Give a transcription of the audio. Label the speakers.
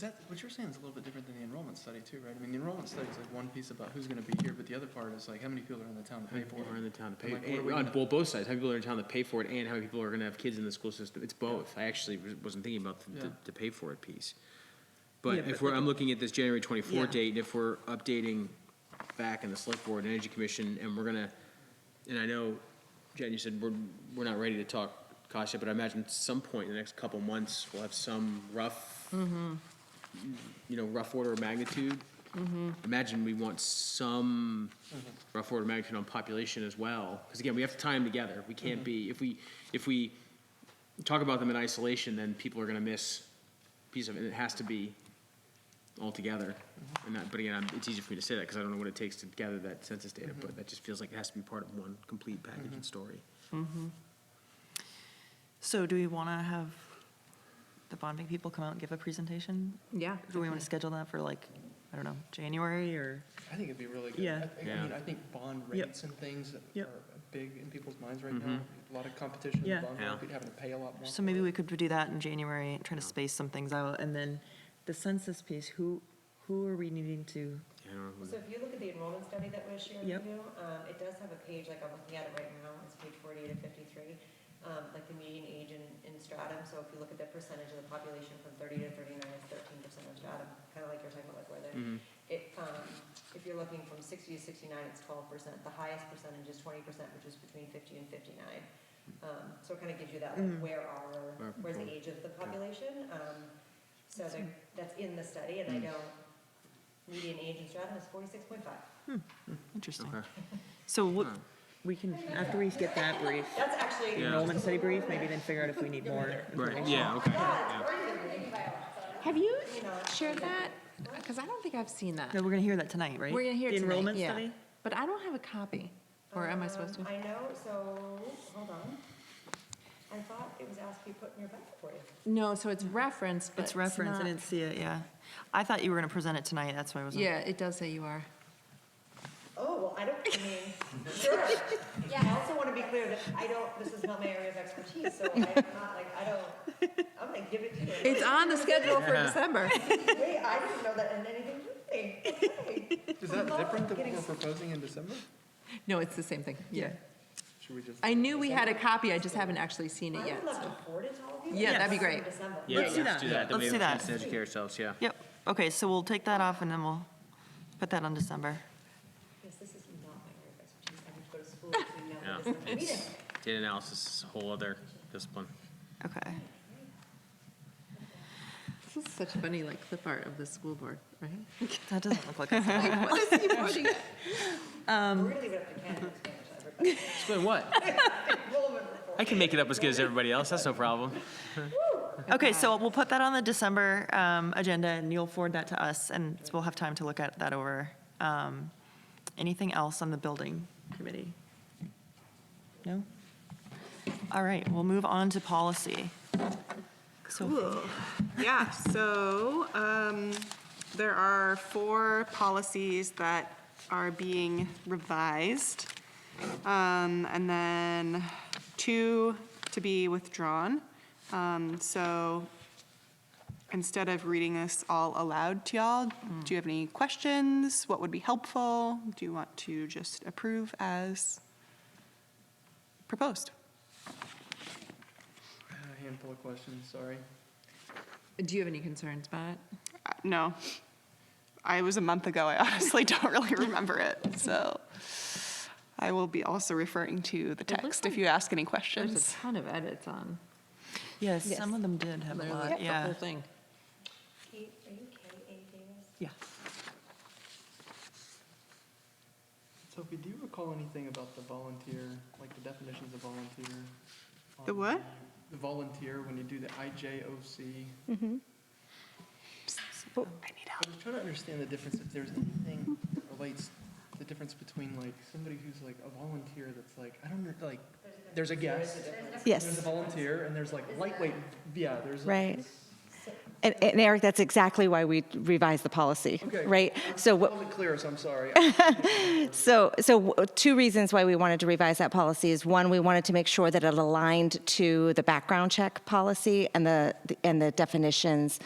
Speaker 1: that, what you're saying is a little bit different than the enrollment study too, right? I mean, the enrollment study is like one piece about who's gonna be here, but the other part is like, how many people are in the town to
Speaker 2: How
Speaker 1: pay
Speaker 2: many
Speaker 1: for
Speaker 2: people are in
Speaker 1: it?
Speaker 2: the town to
Speaker 1: And,
Speaker 2: pay,
Speaker 1: like, what are
Speaker 2: and
Speaker 1: we
Speaker 2: on
Speaker 1: gonna-
Speaker 2: both, both sides, how many people are in town to pay for it, and how many people are gonna have kids in the school system, it's both, I actually was- wasn't thinking about the,
Speaker 1: Yeah.
Speaker 2: the- the pay for it piece.
Speaker 1: Yeah,
Speaker 2: But
Speaker 1: but
Speaker 2: if we're,
Speaker 1: like-
Speaker 2: I'm looking at this January
Speaker 1: Yeah.
Speaker 2: twenty-four date, and if we're updating back in the select board and energy commission, and we're gonna, and I know, Jen, you said we're, we're not ready to talk cost yet, but I imagine at some point in the next couple months, we'll have some rough,
Speaker 1: Mm-hmm.
Speaker 2: you know, rough order of magnitude.
Speaker 1: Mm-hmm.
Speaker 2: Imagine we want some rough order of magnitude on population as well, because again, we have to tie them together. We
Speaker 3: Mm-hmm.
Speaker 2: can't be, if we, if we talk about them in isolation, then people are gonna miss piece of it. It has to be all together.
Speaker 3: Mm-hmm.
Speaker 2: And that, but again, I'm- it's easy for me to say that, because I don't know what it takes to gather that census
Speaker 3: Mm-hmm.
Speaker 2: data, but that just feels like it has to be part of one complete package and story.
Speaker 3: So do we want to have the bonding people come out and give a presentation?
Speaker 4: Yeah.
Speaker 3: Do we want to schedule that for like, I don't know, January or?
Speaker 1: I think it'd be really good.
Speaker 3: Yeah.
Speaker 1: I- I mean,
Speaker 2: Yeah.
Speaker 1: I think bond
Speaker 3: Yep.
Speaker 1: rates and things are
Speaker 3: Yep.
Speaker 1: big in people's minds right now. A lot of competition in the
Speaker 3: Yeah.
Speaker 1: bond
Speaker 2: Mm-hmm. Yeah.
Speaker 1: market, having to pay a lot more.
Speaker 3: So maybe we could do that in January, try to space some things out. And then the census piece, who, who are we needing to?
Speaker 2: I don't know.
Speaker 5: So if you look at the enrollment study that was shared
Speaker 3: Yep.
Speaker 5: with you, um, it does have a page, like I'm looking at it right now, it's page forty-eight of fifty-three, um, like the median age in, in stratum, so if you look at the percentage of the population from thirty to thirty-nine, it's thirteen percent of stratum, kinda like you're talking about like weather. It, um, if you're looking from sixty to sixty-nine, it's twelve percent, the highest percentage is twenty percent, which is between fifty and fifty-nine. Um, so it kinda gives you that, like, where
Speaker 2: Where
Speaker 5: are, where's the
Speaker 2: people-
Speaker 5: age of the population, um, so that, that's in the study, and I know median age in Stratham is forty-six point five.
Speaker 3: Interesting.
Speaker 2: Okay.
Speaker 3: So what,
Speaker 2: Huh.
Speaker 3: we can, after we get that brief,
Speaker 5: That's actually.
Speaker 2: Yeah.
Speaker 3: enrollment study brief, maybe then figure out if we need more.
Speaker 2: Right, yeah, okay. yeah.
Speaker 4: Have you shared that? Because I don't think I've seen that.
Speaker 3: No, we're going to hear that tonight, right?
Speaker 4: We're gonna hear it
Speaker 3: The
Speaker 4: tonight,
Speaker 3: enrollment
Speaker 4: yeah.
Speaker 3: study?
Speaker 4: But I don't have a copy, or am I supposed to?
Speaker 5: Um, I know, so, hold on. I thought it was asked to be put in your packet for you.
Speaker 4: No, so it's referenced, but
Speaker 3: It's referenced, I
Speaker 4: not-
Speaker 3: didn't see it, yeah. I thought you were going to present it tonight, that's why I wasn't.
Speaker 4: Yeah, it does say you are.
Speaker 5: Oh, well, I don't, I mean, sure. I also want to be clear that I don't, this is not my area of expertise, so I'm not like, I don't, I'm gonna give it to you.
Speaker 4: It's on the schedule for
Speaker 2: Yeah.
Speaker 4: December.
Speaker 5: Wait, I didn't know that in anything to me. Okay.
Speaker 1: Is that
Speaker 5: Well,
Speaker 1: different than what
Speaker 5: getting-
Speaker 1: we're proposing in December?
Speaker 4: No, it's the same thing, yeah.
Speaker 1: Should we just?
Speaker 4: I knew we had a copy, I just haven't actually seen it
Speaker 5: I
Speaker 4: yet.
Speaker 5: would love to forward it to all of you.
Speaker 4: Yeah,
Speaker 5: but
Speaker 4: that'd be
Speaker 5: it's in
Speaker 4: great.
Speaker 5: December.
Speaker 2: Yeah,
Speaker 3: Let's do that.
Speaker 2: Then we have
Speaker 3: Let's do
Speaker 2: a chance
Speaker 3: that.
Speaker 2: to Educate ourselves, yeah.
Speaker 3: Yep, okay, so we'll take that off and then we'll put that on December.
Speaker 5: Because this is not my area of expertise, I need to go to school to know
Speaker 2: Yeah,
Speaker 5: what this is. We
Speaker 2: it's,
Speaker 5: didn't-
Speaker 2: data analysis is a whole other discipline.
Speaker 3: Okay.
Speaker 4: This is such funny, like clip art of the school board, right?
Speaker 3: That doesn't look like us.
Speaker 4: What is he pointing at?
Speaker 5: We're gonna leave it up to Ken to explain it to everybody.
Speaker 2: Explain what?
Speaker 5: Enrollment report.
Speaker 2: I can make it up as good as everybody else, that's no problem.
Speaker 3: Okay, so we'll put that on the December um, agenda and you'll forward that to us and we'll have time to look at that over. Um, Anything else on the building committee? No? All right, we'll move on to policy. So
Speaker 6: Yeah, so um, there are four policies that are being revised, um, and then two to be withdrawn. Um, So instead of reading this all aloud to y'all, do you have any questions? What would be helpful? Do you want to just approve as proposed?
Speaker 1: A uh, handful of questions, sorry.
Speaker 4: Do you have any concerns about it?
Speaker 6: Uh, No. I it was a month ago. I honestly don't really remember it. So I will be also referring to the
Speaker 4: looks
Speaker 6: text if
Speaker 4: like
Speaker 6: you ask any
Speaker 4: There's
Speaker 6: questions.
Speaker 4: a ton of edits on,
Speaker 3: Yes,
Speaker 4: Yes.
Speaker 3: some of them did have a
Speaker 4: literally,
Speaker 3: lot,
Speaker 4: the
Speaker 3: yeah.
Speaker 4: whole thing.
Speaker 5: Kate, Are you K A Davis?
Speaker 3: Yeah.
Speaker 1: Sophie, do you recall anything about the volunteer, like the definitions of volunteer?
Speaker 6: The
Speaker 1: on
Speaker 6: what?
Speaker 1: The volunteer, when you do the IJOC.
Speaker 7: Mm-hmm.
Speaker 6: Oh, I need help.
Speaker 1: I was trying to understand the difference, if there's anything that relates, the difference between like somebody who's like a volunteer that's like, I don't know, like, there's a guest. There's a
Speaker 7: Yes,
Speaker 1: volunteer and there's like lightweight, yeah, there's.
Speaker 7: right. And, and Eric, that's exactly why we revised the policy,
Speaker 1: Okay.
Speaker 7: right? So
Speaker 1: I
Speaker 7: what,
Speaker 1: wasn't clear, so I'm sorry.
Speaker 7: so, so w- two reasons why we wanted to revise that policy is one, we wanted to make sure that it aligned to the background check policy and the, and the definitions